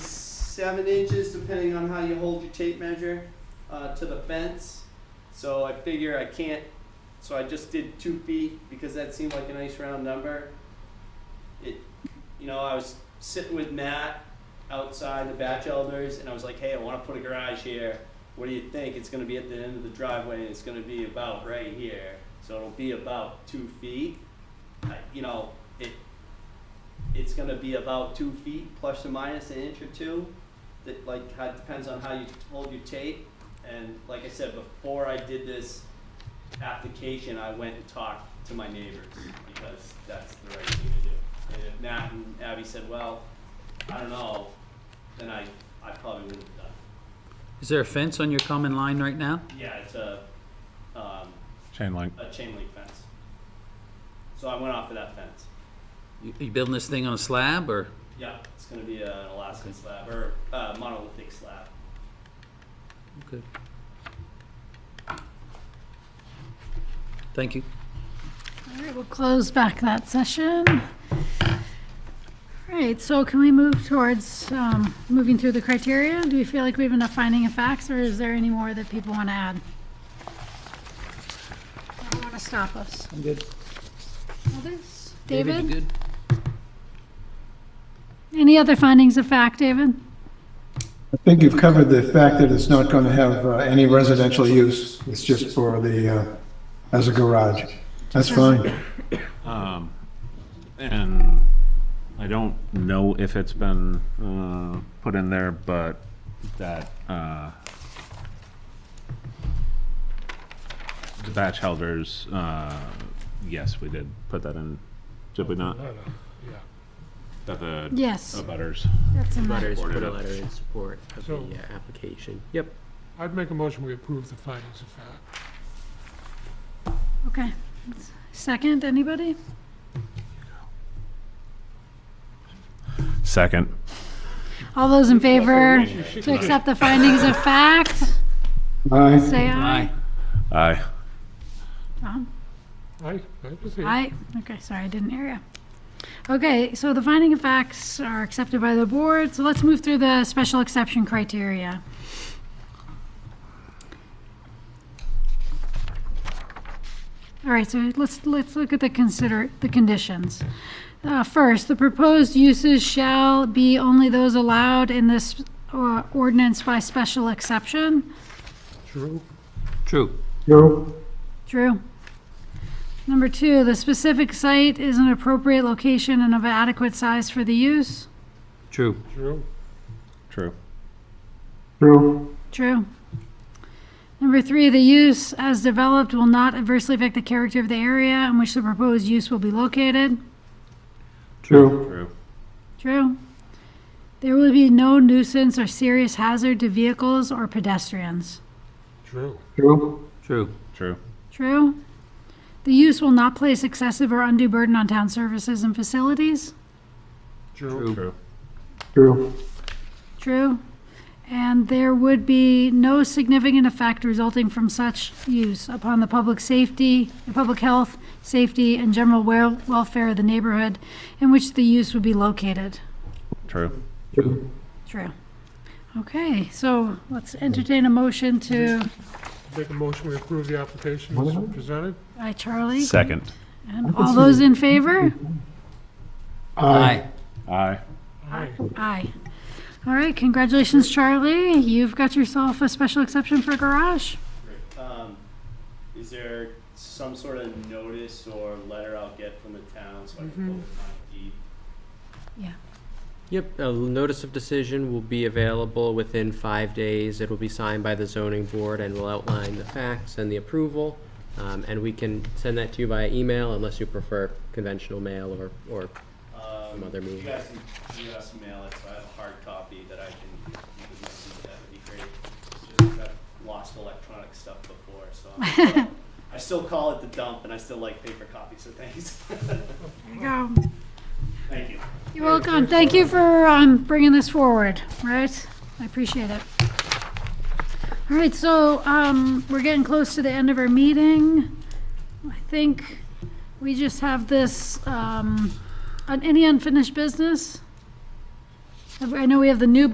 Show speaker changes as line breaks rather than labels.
seven inches, depending on how you hold your tape measure, uh, to the fence. So I figure I can't, so I just did two feet because that seemed like a nice round number. It, you know, I was sitting with Matt outside the batch elders, and I was like, hey, I want to put a garage here. What do you think? It's going to be at the end of the driveway, and it's going to be about right here. So it'll be about two feet. I, you know, it, it's gonna be about two feet plus or minus an inch or two. That like how, depends on how you hold your tape. And like I said, before I did this application, I went and talked to my neighbors because that's the right thing to do. And if Matt and Abby said, well, I don't know, then I, I probably wouldn't have done it.
Is there a fence on your common line right now?
Yeah, it's a, um,
Chain link.
a chain link fence. So I went off of that fence.
You, you building this thing on a slab or?
Yeah, it's gonna be an Alaskan slab or uh, monolithic slab.
Okay. Thank you.
All right, we'll close back that session. All right, so can we move towards um, moving through the criteria? Do we feel like we have enough finding of facts, or is there any more that people want to add? Don't want to stop us.
I'm good.
Others?
David, you
David?
good?
Any other findings of fact, David?
I think you've covered the fact that it's not going to have uh, any residential use. It's just for the, uh, as a garage. That's fine.
And I don't know if it's been uh, put in there, but that uh, the batch holders, uh, yes, we did put that in, did we not? That the
Yes,
butters.
that's in there.
Letters, put a
Supported it.
letter in support of the
So-
uh, application. Yep.
I'd make a motion we approve the findings of fact.
Okay. Second, anybody?
Second.
All those in favor
She
to accept the findings of fact,
Aye.
say
Aye.
aye.
Aye.
Tom?
I, I just see.
I, okay, sorry, I didn't hear you. Okay, so the finding of facts are accepted by the board, so let's move through the special exception criteria. All right, so let's, let's look at the consider, the conditions. Uh, First, the proposed uses shall be only those allowed in this uh, ordinance by special exception.
True.
True.
Drew?
True. Number two, the specific site is an appropriate location and of adequate size for the use.
True.
True.
True.
Drew?
True. Number three, the use as developed will not adversely affect the character of the area in which the proposed use will be located.
Drew?
True.
True. There will be no nuisance or serious hazard to vehicles or pedestrians.
True.
Drew?
True.
True.
True. The use will not place excessive or undue burden on town services and facilities.
True.
True.
Drew?
True. And there would be no significant effect resulting from such use upon the public safety, the public health, safety, and general wel- welfare of the neighborhood in which the use would be located.
True.
Drew?
True. Okay, so let's entertain a motion to,
Make a motion we approve the application
What is
as
it?
presented.
by Charlie.
Second.
And all those in favor?
Aye.
Aye.
Aye.
Aye. All right, congratulations, Charlie. You've got yourself a special exception for garage.
Um, is there some sort of notice or letter I'll get from the town so I can pull it on deed?
Yep. A l- notice of decision will be available within five days. It will be signed by the zoning board and will outline the facts and the approval. Um, and we can send that to you via email unless you prefer conventional mail or, or
Um,
other
you
movie.
guys can, you guys can mail it, so I have a hard copy that I can, you can listen to, that would be great. It's just that I've lost electronic stuff before, so I'm still- I still call it the dump and I still like paper copies of things.
There you go.
Thank you.
You're welcome. Thank you for um, bringing this forward, right? I appreciate it. All right, so um, we're getting close to the end of our meeting. I think we just have this, um, un- any unfinished business? I know we have the new